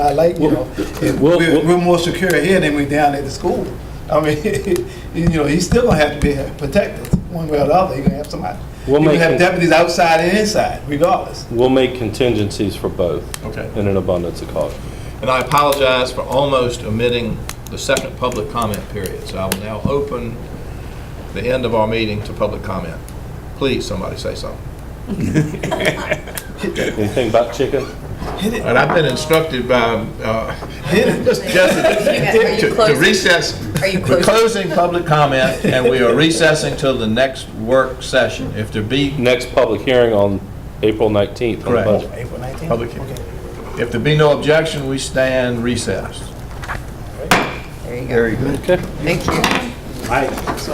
I like, you know. and Well- We're, we're more secure here than we down at the school. I mean, you know, he's still gonna have to be protected, one way or the other, you're gonna have somebody. You're We'll gonna make have it- deputies outside and inside, regardless. We'll make contingencies for both Okay. in an abundance of caution. And I apologize for almost omitting the second public comment period. So I will now open the end of our meeting to public comment. Please, somebody say something. Anything about chicken? And I've been instructed by uh, Are Justin you to- to closing? recess. Are you We're closing? closing public comment, and we are recessing till the next work session. If there be, Next public hearing on April 19th on the Correct. budget. April nineteenth? Public hearing. if there be no objection, we stand recessed. There you go. Very good. Thank you. Right, so.